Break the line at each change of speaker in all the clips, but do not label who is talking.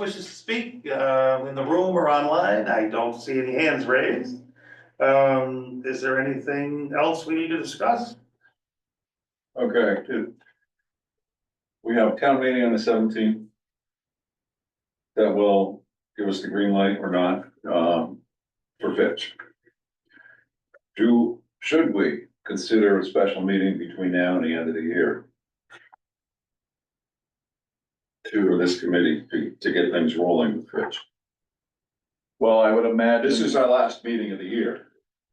wishes to speak, uh, in the room or online? I don't see any hands raised. Um, is there anything else we need to discuss?
Okay, good. We have town meeting on the seventeenth. That will give us the green light or not, um, for Fitch. Do, should we consider a special meeting between now and the end of the year? To this committee to, to get things rolling with Fitch.
Well, I would imagine.
This is uh, our last meeting of the year.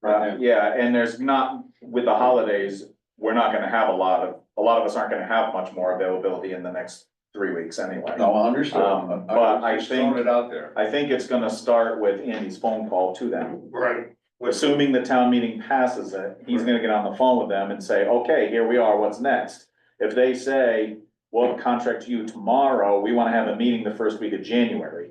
Uh, yeah, and there's not, with the holidays, we're not gonna have a lot of, a lot of us aren't gonna have much more availability in the next three weeks anyway.
No, I understand.
Um, but I
Just throwing
think-
It out there.
I think it's gonna start with Andy's phone call to them.
Right.
Assuming the town meeting passes it, he's gonna get on the phone with them and say, okay, here we are, what's next? If they say, we'll contract you tomorrow, we wanna have a meeting the first week of January.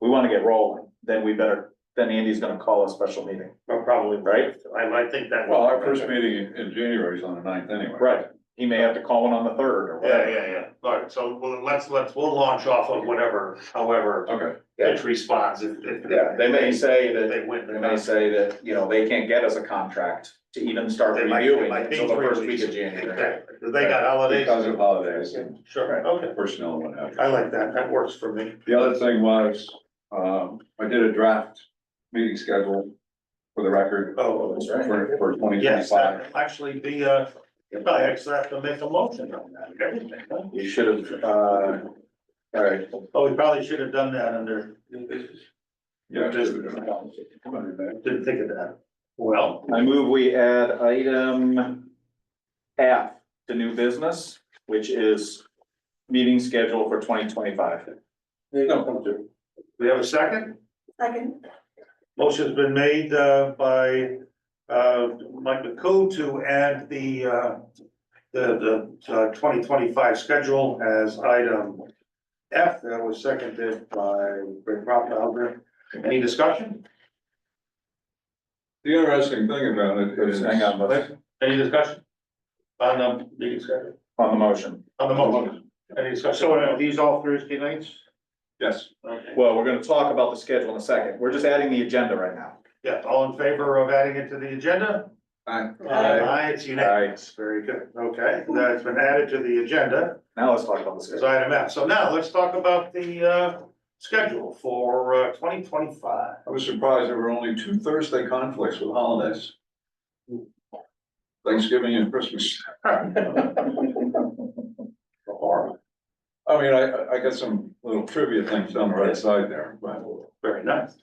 We wanna get rolling, then we better, then Andy's gonna call a special meeting,
Well, Probably,
right?
I, I think that.
Well, our first meeting in January is on the ninth anyway.
Right, he may have to call in on the third or
Yeah,
whatever.
yeah, yeah. All right, so well, let's, let's, we'll launch off of whatever, however,
Okay,
it responds. if- if-
Yeah, they may say
If
that,
they win.
they may say that, you know, they can't get us a contract to even start
They might-
reviewing
might be
until the
three
first week
weeks.
of January.
Exactly, 'cause they got holidays.
because of holidays and
Sure, okay.
personnel and what have you.
I like that. That works for me.
The other thing was, um, I did a draft meeting schedule for the record
Oh, that's right.
for, for twenty
Yes,
twenty-five.
that will actually be, uh, you probably actually have to make a motion on that, and everything, huh?
You should have, uh, all right,
Oh, we probably should have done that under,
Yeah.
Just-
Come on, man.
didn't think of that. Well,
I move we add item F to new business, which is meeting schedule for twenty twenty-five.
No,
we have a second.
Second.
Motion's been made, uh, by, uh, Mike McCoo to add the, uh, the, the twenty twenty-five schedule as item F. That was seconded by Rick Rothfelder. Any discussion?
The interesting thing about it is.
Hang on, let's-
Any discussion? On the meeting schedule,
on the motion.
on the motion, any discussion? So are these all Thursday nights?
Yes,
Okay.
Well, we're gonna talk about the schedule in a second. We're just adding the agenda right now.
Yeah, all in favor of adding it to the agenda?
Aye.
Aye.
Aye, it's unanimous. Very good. Okay, that's been added to the agenda
Now let's talk about the
as
schedule.
item F. So now let's talk about the uh schedule for uh twenty twenty-five.
I was surprised there were only two Thursday conflicts with holidays. Thanksgiving and Christmas.
Or,
I mean, I, I- I got some little trivia things on the right side there, but
very nice.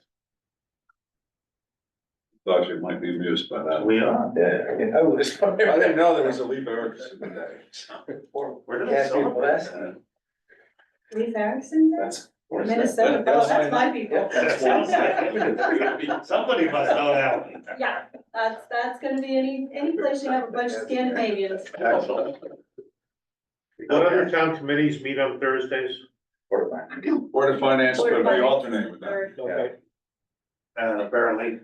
thought you might be amused by that.
We are.
Oh,
I didn't know there was a Lee Erickson today.
Where did I celebrate?
Lee Harrison,
That's,
Minnesota, oh, that's my people.
that's Wednesday.
Somebody must know that.
Yeah, that's, that's gonna be any, any place you have a bunch of Scandinavians.
Excellent.
What other town committees meet on Thursdays?
Board of Finance,
Board
but
of
we
Finance.
alternate with them.
Or-
Okay.
And Uh, apparently,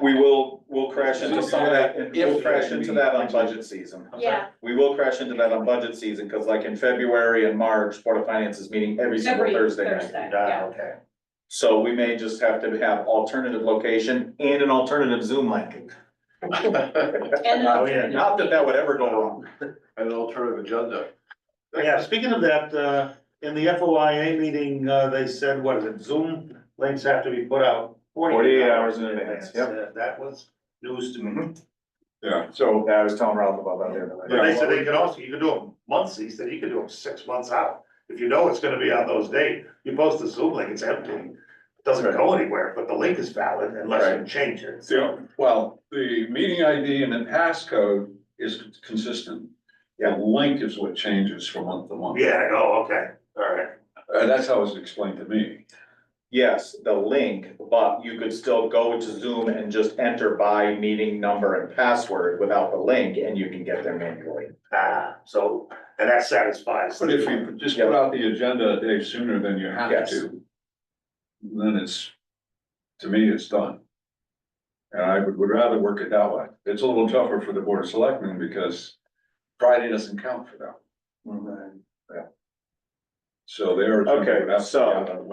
We will, we'll crash into some of that, we'll crash into that on budget season.
Yeah,
We will crash into that on budget season, because like in February and March, Board of Finance is meeting every single
every
Thursday night.
Thursday,
ah,
yeah.
okay.
So we may just have to have alternative location and an alternative Zoom link.
And
Oh, yeah.
Not that that would ever go wrong.
An alternative agenda.
Yeah, speaking of that, uh, in the FOIA meeting, uh, they said, what is it, Zoom links have to be put out.
48 hours in advance, yep.
Uh, That was news to me.
Mhm.
Yeah,
So I was telling Ralph about that the other
But
night.
they said they could also, you could do them months, he said, you could do them six months out. If you know it's gonna be on those days, you post the Zoom link, it's empty. It Doesn't go anywhere, but the link is valid unless you change it.
yeah, well, the meeting ID and the passcode is consistent. The link is what changes from month to month.
Yeah, oh, okay, all right.
Uh, that's how it was explained to me.
Yes, the link, but you could still go to Zoom and just enter by meeting number and password without the link, and you can get there manually.
Ah, so, and that satisfies.
But if you just put out the agenda a day sooner than you have
Yes.
to, then it's, to me, it's done. And I would, would rather work it that way. It's a little tougher for the board of selectmen because Friday doesn't count for them. So they are.
Okay, so-